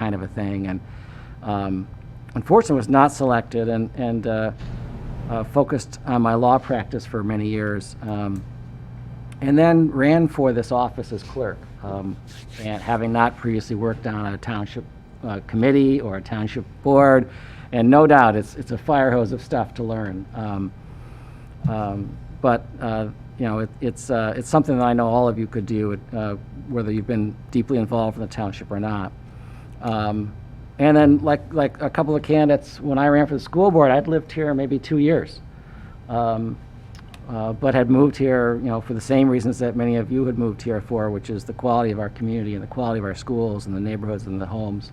kind of a thing. And um, unfortunately, was not selected and, and uh, uh, focused on my law practice for many years. Um, and then ran for this office as clerk, um, and having not previously worked on a township uh, committee or a township board, and no doubt it's it's a fire hose of stuff to learn. Um, um, but uh, you know, it, it's uh, it's something that I know all of you could do, uh, whether you've been deeply involved in the township or not. Um, and then, like like a couple of candidates, when I ran for the school board, I'd lived here maybe two years. Um, uh, but had moved here, you know, for the same reasons that many of you had moved here for, which is the quality of our community and the quality of our schools and the neighborhoods and the homes.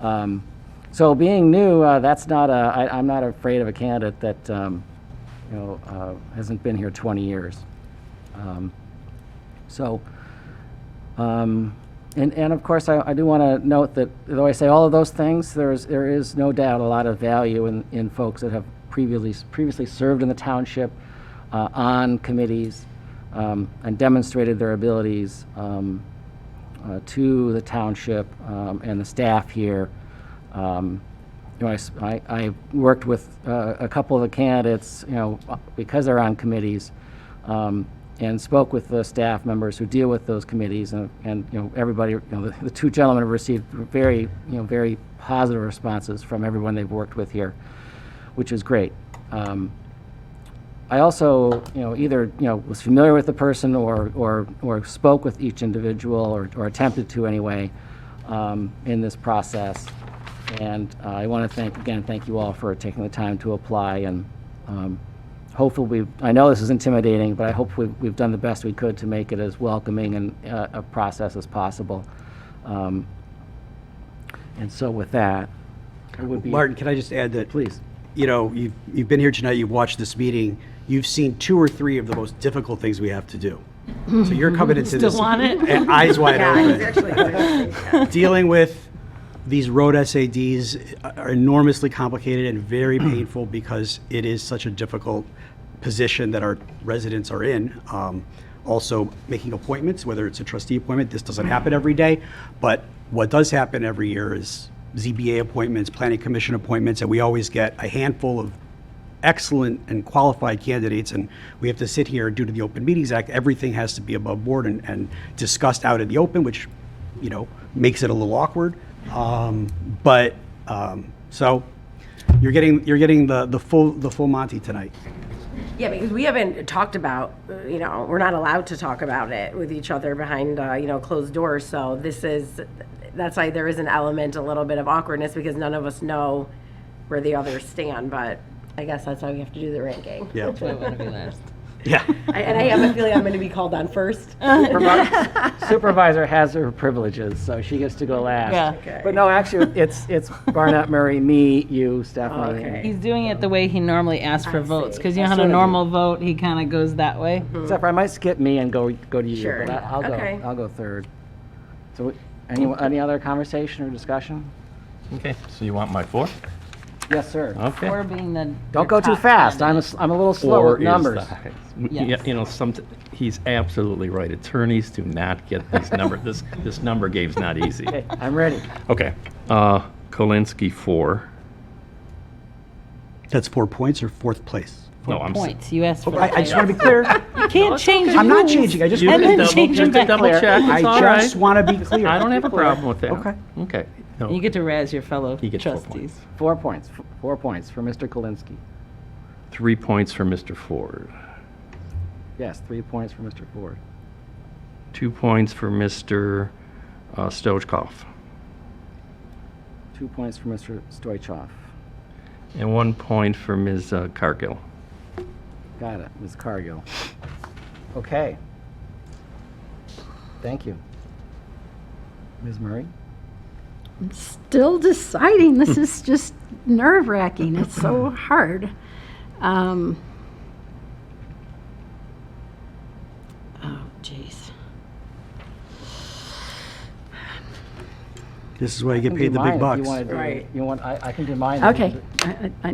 Um, so being new, uh, that's not a, I, I'm not afraid of a candidate that, um, you know, uh, hasn't been here 20 years. Um, so, um, and, and of course, I, I do want to note that though I say all of those things, there is, there is no doubt a lot of value in, in folks that have previously, previously served in the township, uh, on committees, um, and demonstrated their abilities, um, uh, to the township, um, and the staff here. Um, you know, I s- I, I worked with, uh, a couple of the candidates, you know, because they're on committees, um, and spoke with the staff members who deal with those committees, and, and, you know, everybody, you know, the, the two gentlemen have received very, you know, very positive responses from everyone they've worked with here, which is great. Um, I also, you know, either, you know, was familiar with the person or, or, or spoke with each individual or, or attempted to anyway, um, in this process. And uh, I want to thank, again, thank you all for taking the time to apply and, um, hopefully we've, I know this is intimidating, but I hope we've, we've done the best we could to make it as welcoming and, uh, a process as possible. Um, And so with that, it would be. Martin, can I just add that? Please. You know, you've, you've been here tonight, you've watched this meeting, you've seen two or three of the most difficult things we have to do. So you're coming into this. want it? eh, Eyes wide open. Actually, Dealing with these road SADs are enormously complicated and very painful because it is such a difficult position that our residents are in. Um, Also, making appointments, whether it's a trustee appointment, this doesn't happen every day, but what does happen every year is ZBA appointments, planning commission appointments, and we always get a handful of excellent and qualified candidates, and we have to sit here due to the Open Meetings Act, everything has to be above board and, and discussed out in the open, which, you know, makes it a little awkward. Um, but, um, so, you're getting, you're getting the, the full, the full Monty tonight. Yeah, because we haven't talked about, uh, you know, we're not allowed to talk about it with each other behind, uh, you know, closed doors. So this is, that's why there is an element, a little bit of awkwardness because none of us know where the others stand. But I guess that's how we have to do the ranking. Yeah, I want to be last. yeah. I- And I have a feeling I'm going to be called on first. Remarks? supervisor has her privileges, so she gets to go last. Yeah. Okay. But no, actually, it's, it's Barnett, Murray, me, you, Stephanie. Okay. He's doing it the way he normally asks for votes, because you know how sort to of do. normal vote, he kind of goes that way. Except for I might skip me and go, go to you. Sure. But I- I'll go, Okay. I'll go third. So any, any other conversation or discussion? Okay, so you want my four? Yes, sir. Okay. Or being the. Don't go too fast. I'm, a s- I'm a little slow Oh, Four with is numbers. the highest. We- Yes. yeah, You know, some, he's absolutely right. Attorneys do not get these number, this, this number game's not easy. Okay, I'm ready. Okay, uh, Kolinsky, four. That's four points or fourth place? No, I'm. s- Points, you asked for. I, I just want to be clear, You can't change I'm not rules. changing, I just, You And can then double, change them just to back double later. check, it's all I right. just want to be clear. I don't have a problem with that. Okay. Okay. And You No, get to razz your fellow He gets four trustees. points. Four points, f- four points for Mr. Kolinsky. three points for Mr. Ford, Yes, three points for Mr. Ford. two points for Mr. uh, Stoichkov, Two points for Mr. Stoichkov. and one point for Ms. uh, Cargill. Got it, Ms. Cargill. Okay. Thank you. Ms. Murray? still deciding. This is just nerve wracking. It's so hard. Um, oh, jeez. This is why you I get can paid do the mine if big bucks. You want to do Right. You want? I, I can do mine. if you Okay. do- I, I,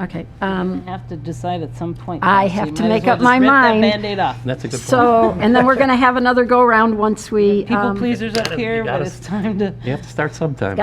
I, okay. Um, You have to decide at some point. I though, so have you to might as make well up just my rip that mind. Band-Aid off. That's a good point. so, and then we're going to have another go round once we. People um, pleasers up gotta- you here, but gotta it's s- time to. You have to start sometime.